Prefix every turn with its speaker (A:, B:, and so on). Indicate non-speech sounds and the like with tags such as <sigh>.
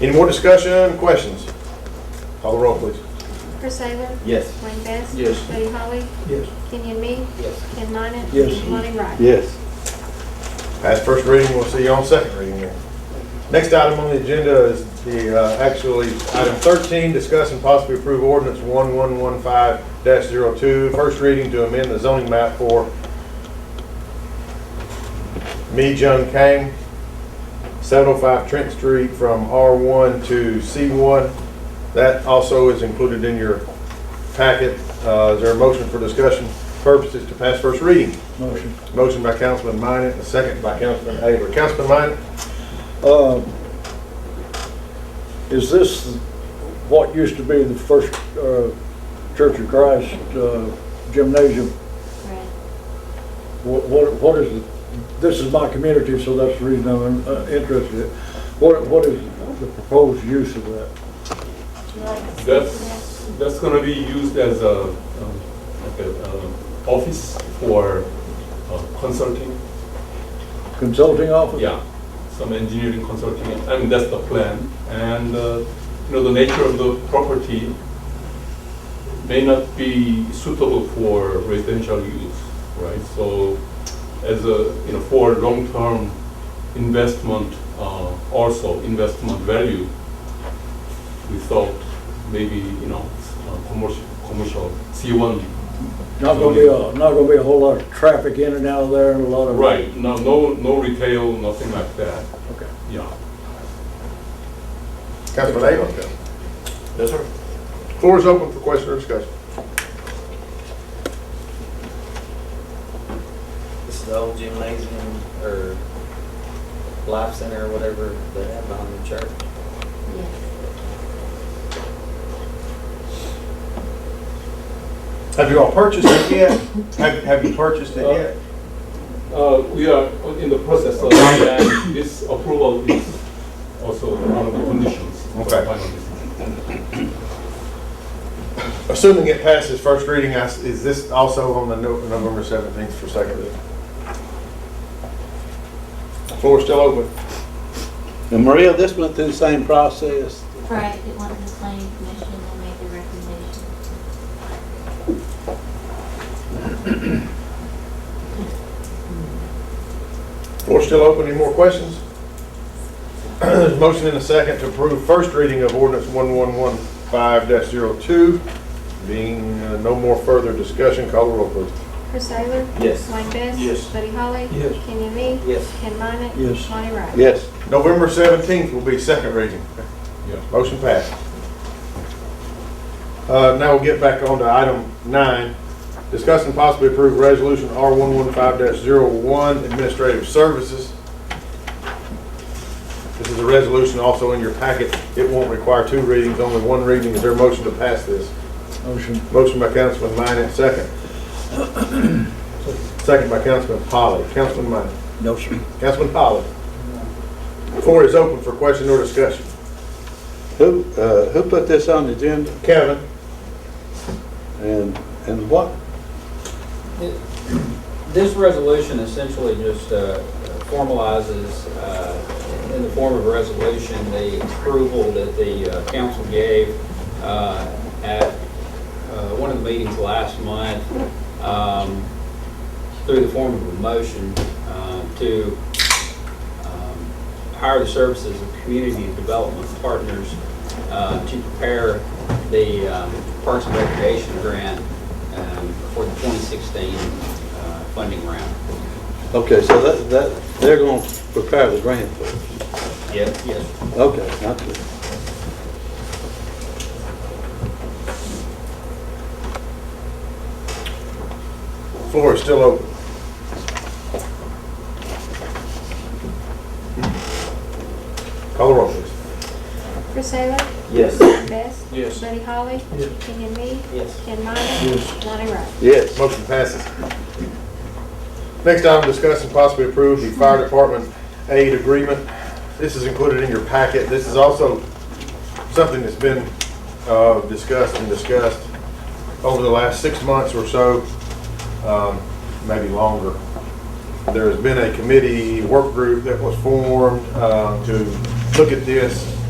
A: Any more discussion, questions? Call the roll, please.
B: Chris Taylor?
C: Yes.
B: Wayne Best?
C: Yes.
B: Buddy Holly?
D: Yes.
B: Kenyon Me?
D: Yes.
B: Ken Minnet?
D: Yes.
B: Lonnie Wright?
E: Yes.
A: That's first reading, we'll see you on second reading here. Next item on the agenda is the, uh, actually, item 13, discuss and possibly approve ordinance 1115-02, first reading to amend the zoning map for Mi Jung Kang, 705 Trent Street from R1 to C1. That also is included in your packet. Uh, Is there a motion for discussion purposes to pass first reading?
D: Motion.
A: Motion by Councilman Minor, a second by Councilman Avery. Councilman Minor?
D: Uh, Is this what used to be the first uh, Church of Christ uh, gymnasium?
B: Right.
D: What, what what is, it? this is my community, so that's the reason I'm uh, interested. in it. What, what is the proposed use of that?
F: That's, that's gonna be used as a, um, like a, um, office for uh, consulting,
D: Consulting office?
F: yeah, some engineering consulting, I mean, that's the plan. And, uh, you know, the nature of the property may not be suitable for residential use, right? So as a, you know, for long-term investment, uh, also investment value, we thought maybe, you know, uh, commercial, commercial C1.
D: Not gonna be, a not gonna be a whole lot of traffic in and out of there and a lot of.
F: Right, no, no, no retail, nothing like that,
D: Okay.
F: yeah.
A: Councilman Avery?
C: Yes, sir.
A: Floor is open for question or discussion.
C: This is the old gymnasium or life center or whatever they have behind the church.
A: Have you all purchased it yet? Have, have you purchased it yet?
F: Uh, We are in the process of, and this approval is also one of the conditions for
A: Okay.
F: final decision.
A: Uh, Assuming it passes first reading, I s- is this also on the no- November 17th for second reading? Floor is still open.
E: And Maria, this went through the same process.
G: Right, it went to the planning commission and made the recommendation.
A: Floor is still open, any more questions? <clears throat> There's a motion and a second to approve first reading of ordinance 1115-02. Being uh, no more further discussion, call the roll, please.
B: Chris Taylor?
C: Yes.
B: Wayne Best?
C: Yes.
B: Buddy Holly?
D: Yes.
B: Kenyon Me?
C: Yes.
B: Ken Minnet?
D: Yes.
B: Lonnie Wright?
E: Yes.
A: November 17th will be second reading.
F: Yeah.
A: Motion passed. Uh, Now we'll get back on to item nine. Discuss and possibly approve resolution R115-01 Administrative Services. This is a resolution also in your packet. It won't require two readings, only one reading. Is there a motion to pass this?
D: Motion.
A: Motion by Councilman Minor, second.
D: <coughs>
A: Second by Councilman Polly. Councilman Minor.
D: No, sir.
A: Councilman Polly. Floor is open for question or discussion.
E: Who, uh, who put this on the agenda?
A: Kevin?
E: And, and what?
C: This resolution essentially just uh, formalizes, uh, in the form of a resolution, the approval that the uh, council gave uh, at uh, one of the meetings last month um, through the form of a motion uh, to um, hire the services of community development partners uh, to prepare the um, Parks and Recreation grant um, for the 2016 uh, funding round.
E: Okay, so that, that, they're gonna prepare the grant for it.
C: Yes. Yes.
E: Okay, not good.
A: Floor is still open. Call the roll, please.
B: Chris Taylor?
C: Yes.
B: Wayne Best?
C: Yes.
B: Buddy Holly? Kenyon Me?
C: Yes.
B: Ken Minnet? Lonnie Wright?
E: Yes.
A: Motion passes. Next item, discuss and possibly approve the fire department aid agreement. This is included in your packet. This is also something that's been uh, discussed and discussed over the last six months or so, um, maybe longer. There has been a committee work group that was formed uh, to look at this